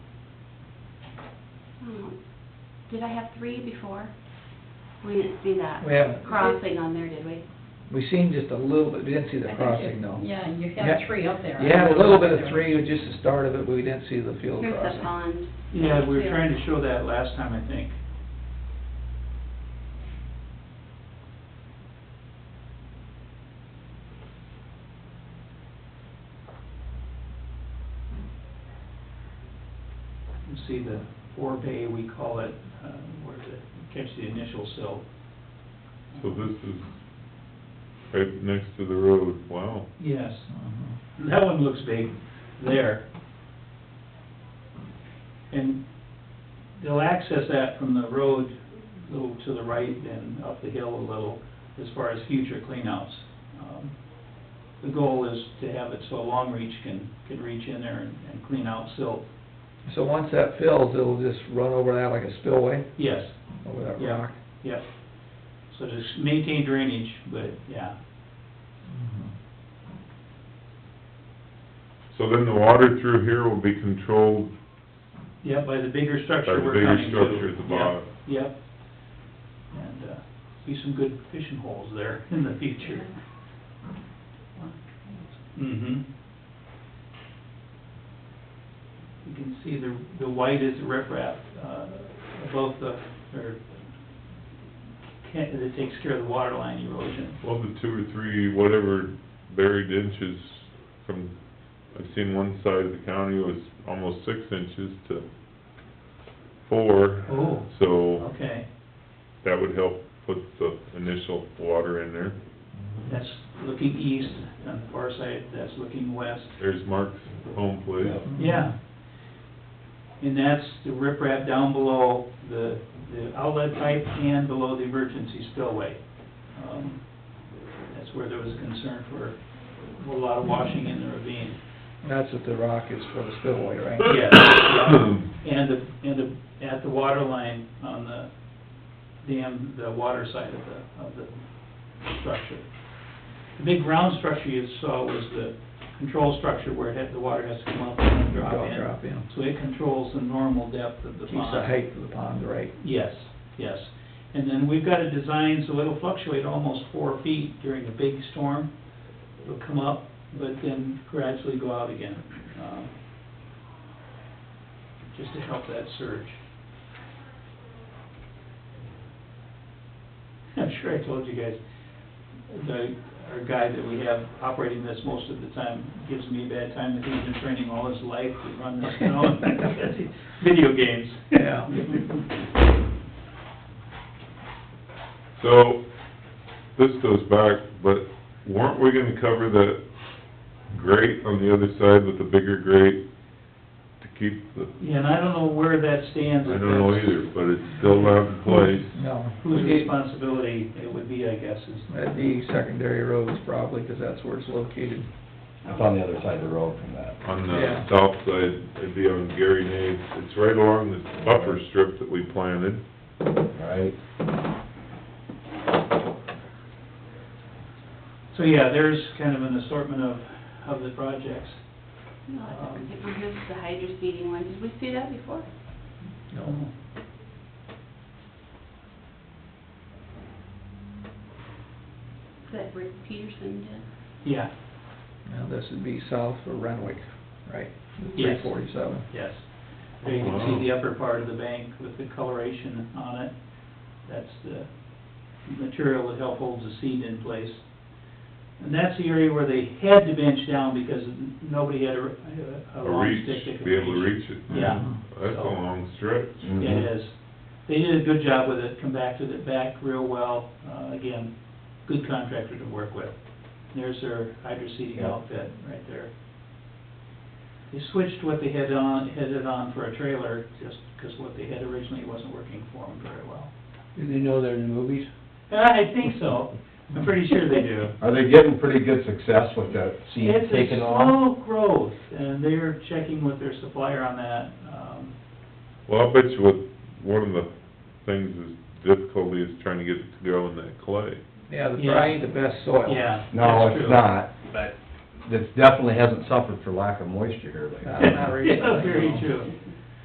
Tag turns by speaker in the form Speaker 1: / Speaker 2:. Speaker 1: Hmm. Did I have three before? We didn't see that
Speaker 2: We haven't,
Speaker 1: crossing on there, did we?
Speaker 2: we seen just a little bit, we didn't see the
Speaker 3: I think
Speaker 2: crossing
Speaker 3: you-
Speaker 2: though.
Speaker 3: Yeah, you
Speaker 2: Yeah.
Speaker 3: had three up there.
Speaker 2: You had a little bit of three, was just the start of it, but we didn't see the field
Speaker 1: Here's the
Speaker 2: crossing.
Speaker 1: pond.
Speaker 4: Yeah, we were trying to show that last time, I think. You see the four bay, we call it, uh, where the, catch the initial silt.
Speaker 5: So this is right next to the road, wow.
Speaker 4: Yes,
Speaker 2: Mhm.
Speaker 4: that one looks big there. And they'll access that from the road, a little to the right and up the hill a little, as far as future cleanouts. Um, The goal is to have it so Long Reach can, can reach in there and, and clean out silt.
Speaker 2: So once that fills, it'll just run over that like a spillway,
Speaker 4: Yes,
Speaker 2: over that
Speaker 4: Yeah.
Speaker 2: rock.
Speaker 4: yep. So just maintain drainage, but, yeah.
Speaker 5: So then the water through here will be controlled
Speaker 4: Yeah, by the bigger
Speaker 5: by
Speaker 4: structure
Speaker 5: the
Speaker 4: we're
Speaker 5: bigger
Speaker 4: coming to.
Speaker 5: structure at the
Speaker 4: Yep,
Speaker 5: bottom.
Speaker 4: Yep. And, uh, be some good fishing holes there in the future. Mm-hmm. You can see the, the white is the riprap, uh, above the, or, can, that takes care of the water line erosion.
Speaker 5: Well, the two or three, whatever buried inches from, I've seen one side of the county was almost six inches to four.
Speaker 4: Oh.
Speaker 5: So
Speaker 4: Okay,
Speaker 5: that would help put the initial water in there.
Speaker 4: that's looking east, on the far side, that's looking west.
Speaker 5: There's Mark's home place.
Speaker 4: Yeah. And that's the riprap down below the, the outlet pipe and below the emergency spillway. Um, That's where there was concern for a lot of washing in the ravine.
Speaker 2: That's what the rock is for, the spillway, right?
Speaker 4: Yes, and the, and the, at the water line on the dam, the water side of the, of the structure. The big round structure you saw was the control structure where it had, the water has to come up and then drop
Speaker 2: Drop,
Speaker 4: in.
Speaker 2: drop in.
Speaker 4: So it controls the normal depth of the
Speaker 2: Keeps the
Speaker 4: pond.
Speaker 2: height of the pond right.
Speaker 4: Yes, yes. And then we've got a design, so it'll fluctuate almost four feet during a big storm. It'll come up, but then gradually go out again, um, just to help that surge. I'm sure I told you guys, the, our guy that we have operating this most of the time gives me a bad time that he's been training all his life to run this, you know, video games.
Speaker 2: Yeah.
Speaker 5: So, this goes back, but weren't we gonna cover that grate on the other side with the bigger grate to keep the,
Speaker 4: Yeah, and I don't know where that stands.
Speaker 5: I don't know either, but it's still not in place.
Speaker 2: No.
Speaker 4: Whose responsibility it would be, I guess, is,
Speaker 2: That'd be secondary roads probably, 'cause that's where it's located.
Speaker 6: It's on the other side of the road from that.
Speaker 5: On the
Speaker 2: Yeah.
Speaker 5: south side, it'd be on Gary Nave's, it's right along this buffer strip that we planted.
Speaker 6: Right.
Speaker 4: so yeah, there's kind of an assortment of, of the projects.
Speaker 1: No, I don't think- here's the hydro seeding one. Did we see that before?
Speaker 2: No.
Speaker 1: That Rick Peterson did?
Speaker 4: Yeah,
Speaker 2: Now, this would be south of Renwick, right?
Speaker 4: Yes.
Speaker 2: Three forty-seven.
Speaker 4: yes. There you can
Speaker 5: Wow.
Speaker 4: see the upper part of the bank with the coloration on it. That's the material that help holds the seed in place. And that's the area where they had to bench down because nobody had a, a
Speaker 5: A
Speaker 4: long
Speaker 5: reach,
Speaker 4: stick that could
Speaker 5: be able to reach it.
Speaker 4: Yeah.
Speaker 5: That's a long stretch.
Speaker 4: It
Speaker 6: Mm-hmm.
Speaker 4: is. They did a good job with it, come back to it back real well. Uh, again, good contractor to work with. There's their hydro seeding
Speaker 6: Yeah.
Speaker 4: outfit right there. They switched what they had on, headed on for a trailer, just because what they had originally wasn't working for them very well.
Speaker 7: Do they know they're in the movies?
Speaker 4: I think so. I'm pretty sure they do.
Speaker 6: Are they getting pretty good success with that seed
Speaker 4: It's a
Speaker 6: taking off?
Speaker 4: slow growth, and they're checking with their supplier on that. Um,
Speaker 5: Well, I bet you what, one of the things is difficulty is trying to get it to go in that clay.
Speaker 2: Yeah, the
Speaker 4: Yeah.
Speaker 2: probably the best soil.
Speaker 4: yeah.
Speaker 6: No,
Speaker 4: that's
Speaker 6: it's
Speaker 4: true.
Speaker 6: not, but it definitely hasn't suffered for lack of moisture here
Speaker 2: Uh,
Speaker 6: lately.
Speaker 2: not
Speaker 4: Yeah,
Speaker 2: recently.
Speaker 4: very true.